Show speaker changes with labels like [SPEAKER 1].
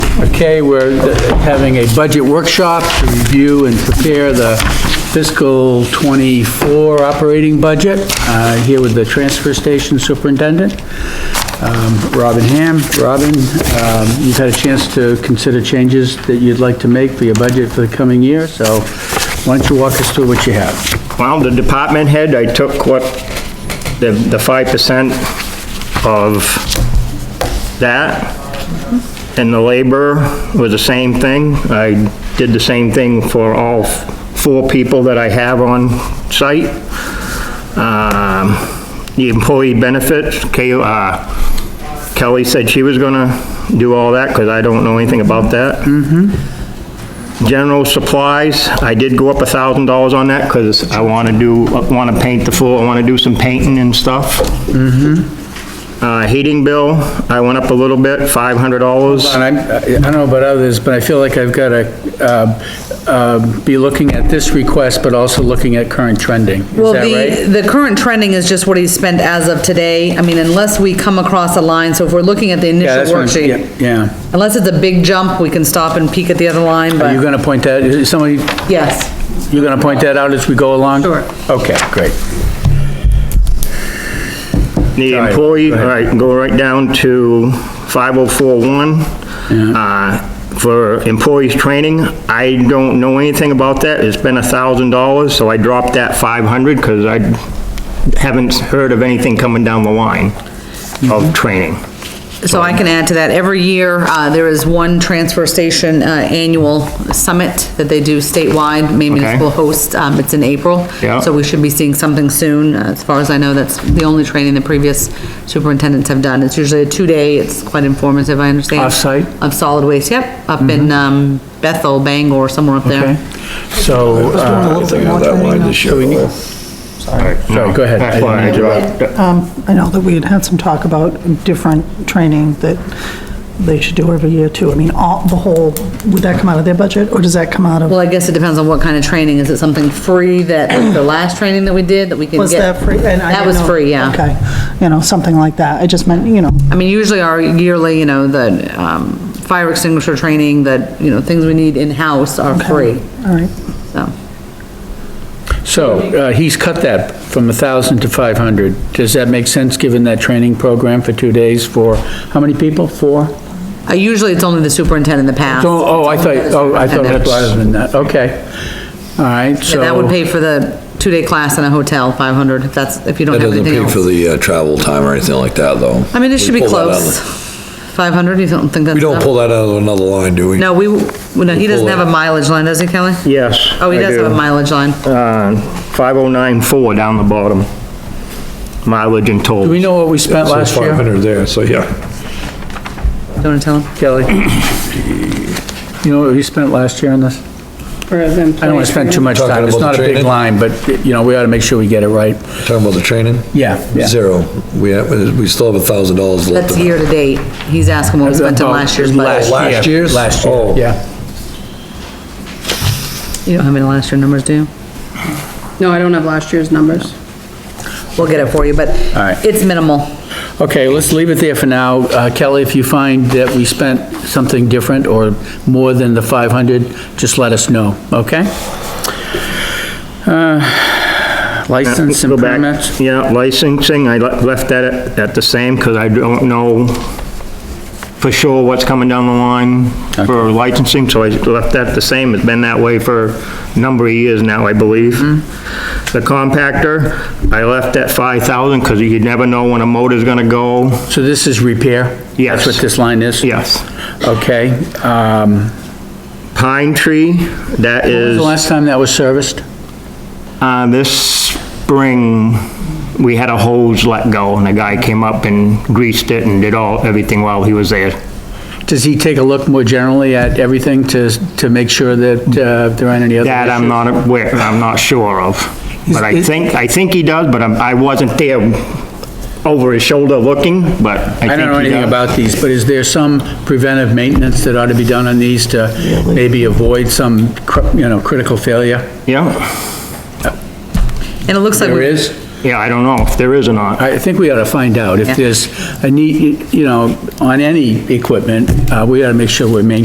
[SPEAKER 1] okay, we're having a budget workshop to review and prepare the fiscal '24 operating budget, Uh, here with the transfer station superintendent, um, Robin Ham. Robin, um, you've had a chance to consider changes that you'd like to make for your budget for the coming year, so why don't you walk us through what you have?
[SPEAKER 2] Well, the department head, I took what, the, the five percent of that, and the labor was the same thing. I did the same thing for all four people that I have on site. Um, the employee benefits, Kay- uh, Kelly said she was gonna do all that, because I don't know anything about that. General supplies, I did go up a thousand dollars on that, because I want to do, want to paint the floor, I want to do some painting and stuff. Uh, heating bill, I went up a little bit, five hundred dollars.
[SPEAKER 1] And I'm, I don't know about others, but I feel like I've got to be looking at this request, but also looking at current trending. Is
[SPEAKER 3] Well,
[SPEAKER 1] that right?
[SPEAKER 3] the, the current trending is just what he's spent as of today. I mean, unless we come across a line, so if we're looking at the
[SPEAKER 1] Yeah, that's what
[SPEAKER 3] initial
[SPEAKER 1] I'm-
[SPEAKER 3] worksheet,
[SPEAKER 1] Yeah.
[SPEAKER 3] unless it's a big jump, we can stop and peek at the other line,
[SPEAKER 1] Are you
[SPEAKER 3] but
[SPEAKER 1] going to point that, is somebody,
[SPEAKER 3] yes.
[SPEAKER 1] you're going to point that out as we go along?
[SPEAKER 3] Sure.
[SPEAKER 1] Okay, great.
[SPEAKER 2] The
[SPEAKER 1] Sorry,
[SPEAKER 2] employee,
[SPEAKER 1] go ahead.
[SPEAKER 2] all right, go right down to 5041. Uh, For employees' training, I don't know anything about that. It's been $1,000, so I dropped that 500 because I haven't heard of anything coming down the line
[SPEAKER 1] Mm-hmm.
[SPEAKER 2] of training.
[SPEAKER 3] So I can add to that, every year, uh, there is one transfer station, uh, annual summit that they do statewide, Maine
[SPEAKER 2] Okay.
[SPEAKER 3] Municipal hosts, um, it's in April.
[SPEAKER 2] Yeah.
[SPEAKER 3] So we should be seeing something soon, Uh, as far as I know, that's the only training the previous superintendents have done. It's usually a two-day, it's quite informative, I understand.
[SPEAKER 1] Off-site? Mm-hmm.
[SPEAKER 3] Of solid waste, yep, up in, um, Bethel, Bangor, somewhere up
[SPEAKER 1] Okay.
[SPEAKER 3] there.
[SPEAKER 1] So, uh,
[SPEAKER 4] Everything on that line this year, though.
[SPEAKER 1] sorry, go ahead. I
[SPEAKER 2] That's
[SPEAKER 1] didn't
[SPEAKER 2] why I
[SPEAKER 1] mean to-
[SPEAKER 2] dropped,
[SPEAKER 4] Um, I know that we had had some talk about different training that they should do every year too. I mean, all, the whole, would that come out of their budget or does that come out
[SPEAKER 3] Well,
[SPEAKER 4] of,
[SPEAKER 3] I guess it depends on what kind of training, is it something free that, like the last training that we did, that we can get?
[SPEAKER 4] was that free? And
[SPEAKER 3] That
[SPEAKER 4] I didn't
[SPEAKER 3] was
[SPEAKER 4] know-
[SPEAKER 3] free, yeah.
[SPEAKER 4] Okay, you know, something like that. I just meant, you know,
[SPEAKER 3] I mean, usually our yearly, you know, the, um, fire extinguisher training, that, you know, things we need in-house are free,
[SPEAKER 4] all right.
[SPEAKER 3] so.
[SPEAKER 1] So, uh, he's cut that from 1,000 to 500. Does that make sense, given that training program for two days for, how many people? Four?
[SPEAKER 3] Uh, usually it's only the superintendent in the past.
[SPEAKER 1] Oh, oh, I thought, oh, I thought it was larger than that, okay. All right,
[SPEAKER 3] Yeah,
[SPEAKER 1] so.
[SPEAKER 3] that would pay for the two-day class in a hotel, five hundred, if that's, if you don't
[SPEAKER 5] That
[SPEAKER 3] have
[SPEAKER 5] doesn't
[SPEAKER 3] anything
[SPEAKER 5] pay for
[SPEAKER 3] else.
[SPEAKER 5] the uh, travel time or anything like that, though.
[SPEAKER 3] I mean, it should be
[SPEAKER 5] We pull that out of
[SPEAKER 3] close.
[SPEAKER 5] the-
[SPEAKER 3] Five hundred, you don't think that's
[SPEAKER 5] We don't
[SPEAKER 3] enough?
[SPEAKER 5] pull that out of another line, do we?
[SPEAKER 3] No, we, we- no, he
[SPEAKER 5] We pull
[SPEAKER 3] doesn't have
[SPEAKER 5] it.
[SPEAKER 3] a mileage line, does he, Kelly?
[SPEAKER 2] yes.
[SPEAKER 3] Oh, he
[SPEAKER 2] I
[SPEAKER 3] does have
[SPEAKER 2] do.
[SPEAKER 3] a mileage line.
[SPEAKER 2] Uh, 5094 down the bottom, mileage and toll.
[SPEAKER 1] Do we know what we spent last year?
[SPEAKER 6] 500 there, so yeah.
[SPEAKER 3] You wanna tell him?
[SPEAKER 1] Kelly? You know what we spent last year on this? I don't want to spend too much
[SPEAKER 5] Talking
[SPEAKER 1] time, it's
[SPEAKER 5] about
[SPEAKER 1] not a
[SPEAKER 5] the
[SPEAKER 1] big
[SPEAKER 5] training?
[SPEAKER 1] line, but, you know, we ought to make sure we get it right.
[SPEAKER 5] Talking about the training?
[SPEAKER 1] Yeah, yeah.
[SPEAKER 5] Zero. We, have- we still have a thousand dollars left.
[SPEAKER 3] That's
[SPEAKER 5] in it.
[SPEAKER 3] year-to-date, he's asking what we spent in
[SPEAKER 1] About
[SPEAKER 3] last year's budget.
[SPEAKER 5] Last year's?
[SPEAKER 1] Last year,
[SPEAKER 5] Oh.
[SPEAKER 1] yeah.
[SPEAKER 3] You don't have any last year numbers, do you?
[SPEAKER 7] No, I don't have last year's numbers.
[SPEAKER 3] We'll get it for you, but
[SPEAKER 1] right.
[SPEAKER 3] it's minimal.
[SPEAKER 1] Okay, let's leave it there for now. Uh, Kelly, if you find that we spent something different or more than the 500, just let us know, okay? Uh, License and
[SPEAKER 2] Go back.
[SPEAKER 1] permits?
[SPEAKER 2] Yeah, licensing, I le- left that at- at the same, because I don't know for sure what's coming down the line for licensing, so I left that the same, it's been that way for a number of years now, I believe.
[SPEAKER 1] Mm-hmm.
[SPEAKER 2] The compactor, I left at 5,000, because you never know when a motor's gonna go.
[SPEAKER 1] So this is repair?
[SPEAKER 2] Yes.
[SPEAKER 1] That's what this line is?
[SPEAKER 2] Yes.
[SPEAKER 1] Okay, um,
[SPEAKER 2] Pine tree, that
[SPEAKER 1] when was
[SPEAKER 2] is,
[SPEAKER 1] the last time that was serviced?
[SPEAKER 2] uh, this spring, we had a hose let go, and a guy came up and greased it and did all, everything while he was there.
[SPEAKER 1] Does he take a look more generally at everything to, to make sure that uh, there aren't any other
[SPEAKER 2] That I'm
[SPEAKER 1] issues?
[SPEAKER 2] not aware, I'm not sure of. But I
[SPEAKER 1] Is- is-
[SPEAKER 2] think, I think he does, but I'm- I wasn't there over his shoulder looking, but I think
[SPEAKER 1] I don't know
[SPEAKER 2] he
[SPEAKER 1] anything
[SPEAKER 2] does.
[SPEAKER 1] about these, but is there some preventive maintenance that ought to be done on these to maybe avoid some, cr- you know, critical failure?
[SPEAKER 2] Yeah,
[SPEAKER 3] And it looks like.
[SPEAKER 1] There
[SPEAKER 3] we-
[SPEAKER 1] is?
[SPEAKER 2] yeah, I don't know if there is or not.
[SPEAKER 1] I think we ought to find out if
[SPEAKER 3] Yeah.
[SPEAKER 1] there's a need, you know, on any equipment, uh, we ought to make sure we're maintaining